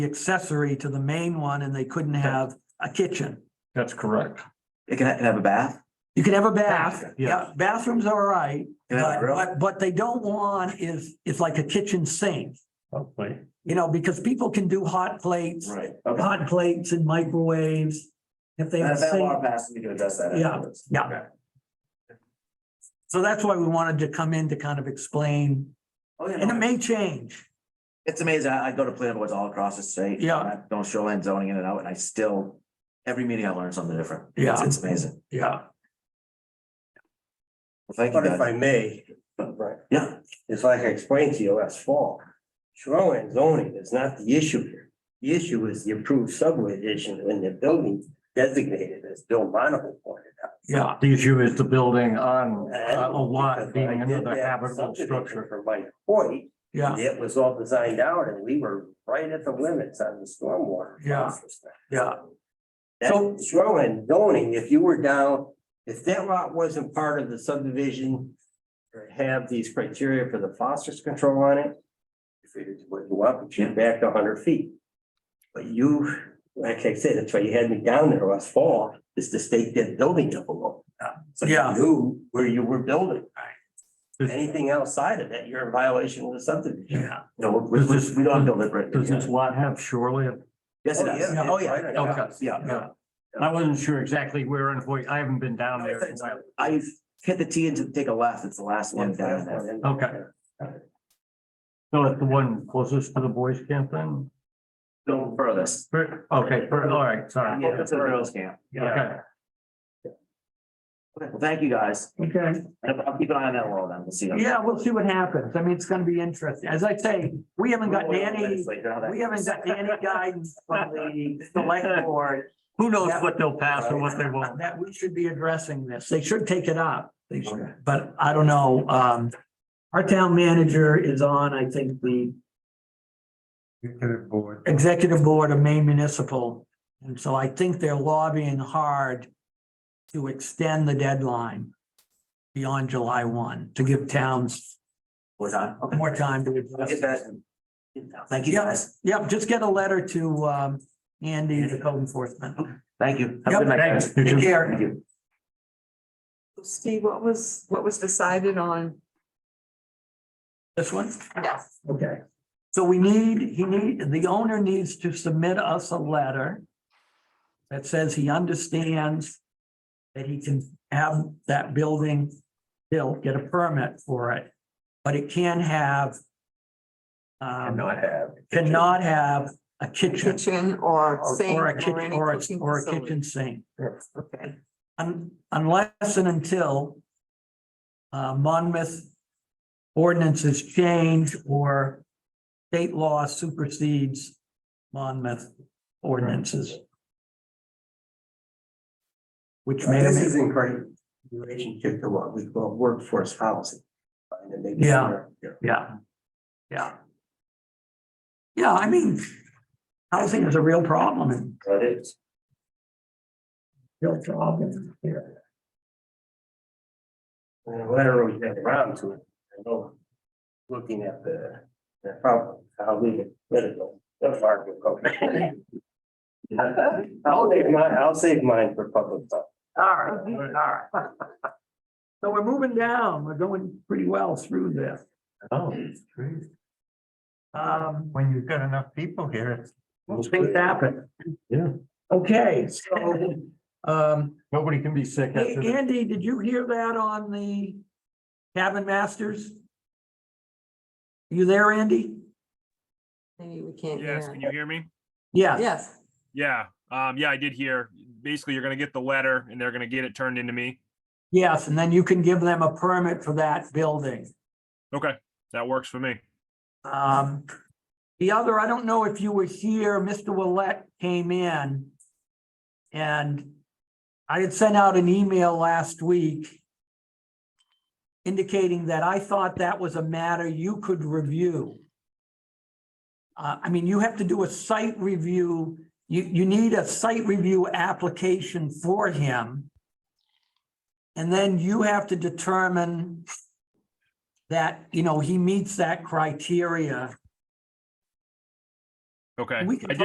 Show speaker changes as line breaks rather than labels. accessory to the main one and they couldn't have a kitchen.
That's correct.
It can have a bath,
You can have a bath,
Yeah.
yeah, bathrooms are all right,
it can have a
but,
grill.
but, but they don't want is, is like a kitchen sink.
Hopefully.
You know, because people can do hot plates,
Right. Okay.
hot plates and microwaves. If they have a
That, that law
sink,
passed, we can address that
Yeah.
afterwards.
yeah. So that's why we wanted to come in to kind of explain,
Oh, yeah,
and it
no,
may change.
It's amazing. I, I go to planning boards all across the state.
Yeah.
and I've done shoreline zoning in and out, and I still, every meeting I learn something different. It's-
Yeah.
It's amazing.
Yeah.
Well, Thank you
But if
guys.
I may, right,
Yeah,
it's like I explained to you last fall, shoreline zoning is not the issue here. The issue is the approved subdivision when the building designated as Bill Monaco pointed out.
Yeah,
The issue is the building on
And
uh, a lot being
because I did
another
that
habitable
subdivision
structure.
For Mike Hoyt,
yeah,
it was all designed out and we were right at the limits on the stormwater.
Yeah.
process.
yeah,
So shoreline zoning, if you were down, if that lot wasn't part of the subdivision. Or have these criteria for the phosphorus control on it. If you what you want, but you're back to hundred feet. But you, like I said, that's why you had me down there last fall, is to stake that building up a little. So you
Yeah.
knew where you were building.
Right.
Anything outside of that, you're in violation of the subdivision.
yeah.
no, we, we, we don't deliberate.
Does this lot have shoreline?
Yes, it does.
yeah.
Oh, yeah,
Right.
Okay.
yeah.
Yeah. I wasn't sure exactly where in Hoyt. I haven't been down there. in a while.
I've hit the T and to take a left. It's the last one down there.
Okay. So it's the one closest to the boys camp then?
Go furthest.
Fur- Okay, fur- all right, sorry.
Yeah, that's a girls camp.
Okay.
Okay, Well, thank you, guys.
Okay.
I'll I'll keep an eye on that wall then. We'll see.
Yeah, we'll see what happens. I mean, it's gonna be interesting. As I say, we haven't gotten any, we haven't gotten any guidance from the select board
Who knows what they'll pass and what they won't.
that we should be addressing this. They should take it up. They should, but I don't know. Um, our town manager is on, I think, the
board.
executive board of Maine Municipal. And so I think they're lobbying hard to extend the deadline beyond July one, to give towns
Was on. Okay.
more time to address.
Get
it.
that. Thank you,
Yeah.
guys.
Yep, just get a letter to um Andy, the code enforcement.
Thank you. Have a
Yep,
good night,
thanks.
guys.
You too.
Take care.
Thank you.
Steve, what was, what was decided on?
This one?
Yes.
Okay. So we need, he need, the owner needs to submit us a letter that says he understands that he can have that building built, get a permit for it, but it can have um,
Cannot have.
cannot have a kitchen
Kitchen or
or
sink
or
or
a kitchen
any
or a,
cooking
or a
facility.
kitchen sink.
Okay,
Un- unless and until uh, Monmouth ordinances change or state law supersedes Monmouth ordinances. Which may,
This is in great relationship to what we call workforce housing. And maybe
Yeah.
somewhere here.
yeah, yeah. Yeah, I mean, housing is a real problem and
That is.
real problem here.
And whenever uh, we get around to it, I know, looking at the, the problem, how we get rid of them, the fire will go. I'll save mine, I'll save mine for public stuff.
All right, all right. So we're moving down, we're going pretty well through this.
Oh, great.
Um,
When you've got enough people here. it's-
things happen.
Yeah.
Okay, so, um,
Nobody can be sick
hey,
after that.
Andy, did you hear that on the cabin masters? You there, Andy?
Maybe we can't
Yes,
hear.
can you hear me?
Yeah,
Yes,
Yeah, um, yeah, I did hear. Basically, you're gonna get the letter and they're gonna get it turned into me.
yes, and then you can give them a permit for that building.
Okay, that works for me.
Um, the other, I don't know if you were here, Mr. Willett came in. And I had sent out an email last week. Indicating that I thought that was a matter you could review. Uh, I mean, you have to do a site review, you, you need a site review application for him. And then you have to determine that, you know, he meets that criteria
Okay.
We can
I did